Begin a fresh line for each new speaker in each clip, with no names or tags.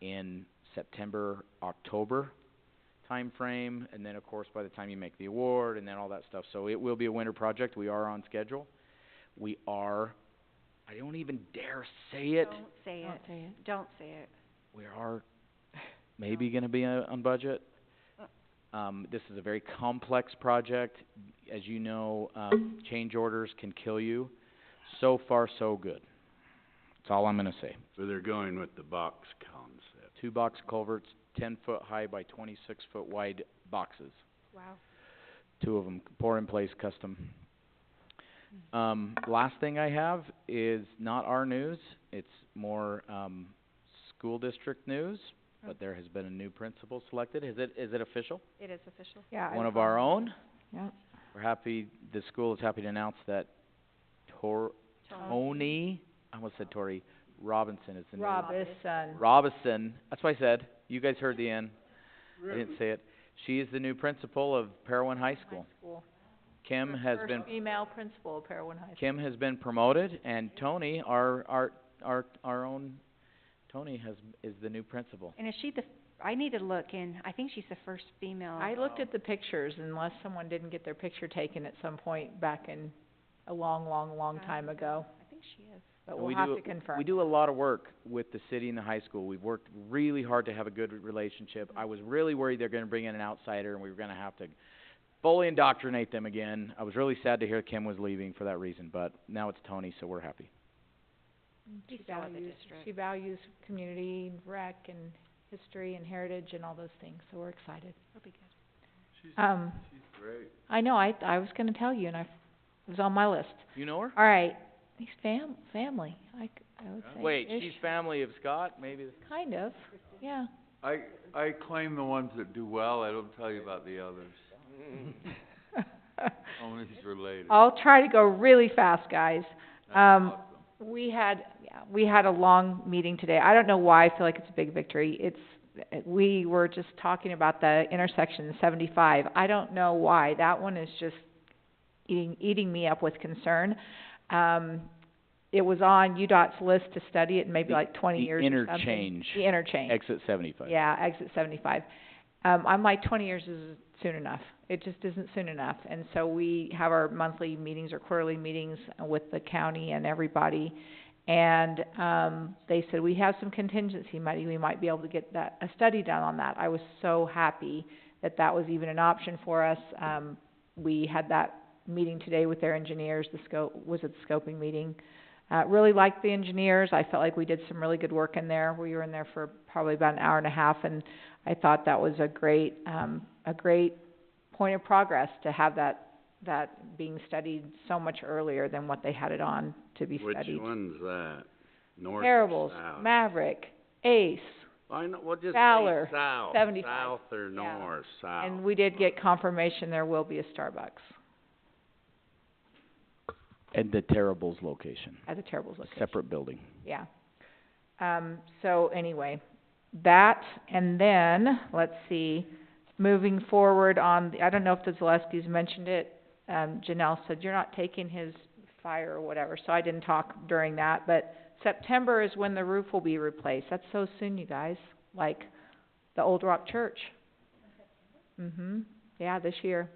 in September, October timeframe, and then, of course, by the time you make the award and then all that stuff. So it will be a winter project. We are on schedule. We are, I don't even dare say it,
Don't say
Don't
it,
say it.
don't say it.
we are maybe gonna be uh, on budget. Um, this is a very complex project. As you know, um, change orders can kill you. So far, so good. That's all I'm gonna say.
So they're going with the box concept.
Two box culverts, ten foot high by twenty-six foot wide boxes.
Wow.
two of them, pour in place custom. Um, last thing I have is not our news, it's more, um, school district news, but there has been a new principal selected, is it, is it official?
It is official.
Yeah.
One of our own,
Yeah.
we're happy, the school is happy to announce that Tor-
Um,
Tony, I almost said Tori, Robinson is the new.
Robinson.
Robinson, that's what I said, you guys heard the end, I didn't say it, she is the new principal of Parowan High School. Kim has been
First female principal of Parowan High School.
Kim has been promoted, and Tony, our, our, our, our own, Tony has, is the new principal.
And is she the, I need to look and I think she's the first female.
I looked at the pictures unless someone didn't get their picture taken at some point back in a long, long, long time ago,
I think she is.
but
And
we'll
we
have
do-
to confirm.
We do a lot of work with the city and the high school. We've worked really hard to have a good relationship. I was really worried they're gonna bring in an outsider, and we were gonna have to fully indoctrinate them again. I was really sad to hear Kim was leaving for that reason, but now it's Tony, so we're happy.
She
She's out of the
values,
district.
she values community, rec, and history, and heritage, and all those things, so we're excited.
That'll be good.
Um,
She's great.
I know, I, I was gonna tell you, and I, it was on my list.
You know her?
All right, he's fam- family, I, c- I would say.
Wait,
ish.
she's family of Scott, maybe?
Kind of, yeah.
I, I claim the ones that do well, I don't tell you about the others, only is related.
I'll try to go really fast, guys.
That's
Um,
awesome.
we had, yeah, we had a long meeting today. I don't know why, I feel like it's a big victory. It's, we were just talking about the intersection seventy-five. I don't know why, that one is just eating, eating me up with concern. Um, it was on UDOT's list to study it in maybe
The-
like twenty
the
years or something.
interchange.
The interchange.
Exit seventy-five.
Yeah, exit seventy-five. Um, I'm like, twenty years is soon enough. It just isn't soon enough. And so we have our monthly meetings or quarterly meetings with the county and everybody. And, um, they said, we have some contingency money, we might be able to get that, a study done on that. I was so happy that that was even an option for us. Um, we had that meeting today with their engineers, the scope, was it the scoping meeting? Uh, really liked the engineers, I felt like we did some really good work in there, we were in there for probably about an hour and a half, and I thought that was a great, um, a great point of progress to have that, that being studied so much earlier than what they had it on to be studied.
Which one's that? North or
Parables,
south?
Maverick, Ace,
I know, well, just say
Fowler,
south,
75.
south or
Yeah.
north, south.
and we did get confirmation there will be a Starbucks
And the Terribles location,
at the Terrible's location.
separate building.
Yeah. Um, so anyway, that, and then, let's see, moving forward on, the- I don't know if the Zaleskis mentioned it, um, Janelle said, you're not taking his fire or whatever, so I didn't talk during that, but September is when the roof will be replaced. That's so soon, you guys, like the Old Rock Church. hmm yeah, this year.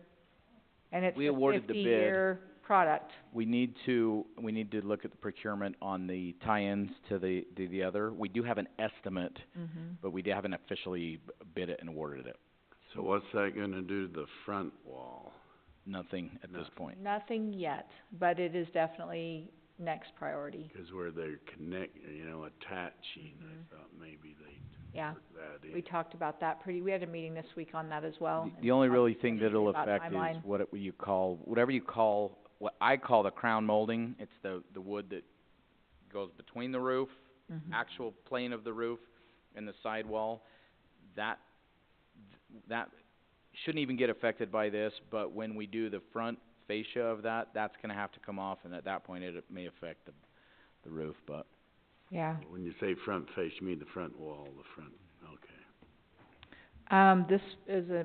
And it's
We
a
awarded the bid.
fifty-year product.
We need to, we need to look at the procurement on the tie-ins to the, to the other. We do have an estimate,
Mm-hmm.
but we d- haven't officially b- bid it and awarded it.
So what's that gonna do to the front wall?
Nothing at this
Nothing.
point.
Nothing yet, but it is definitely next priority,
'Cause where they're connect, you know, attaching,
Mhm.
I thought maybe they'd
yeah.
work that in.
We talked about that pretty, we had a meeting this week on that as well.
The, the only
and
really thing
talked
that'll
about
affect is
timeline.
what it, you call, whatever you call, what I call the crown molding. It's the, the wood that goes between the roof,
Mhm.
actual plane of the roof and the sidewall. That, that shouldn't even get affected by this, but when we do the front fascia of that, that's gonna have to come off, and at that point, it may affect the, the roof, but
Yeah.
When you say front face, you mean the front wall, the front, okay.
Um, this is a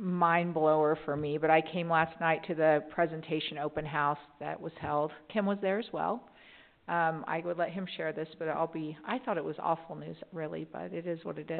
mind blower for me, but I came last night to the presentation open house that was held. Kim was there as well. Um, I would let him share this, but I'll be, I thought it was awful news, really, but it is what it is.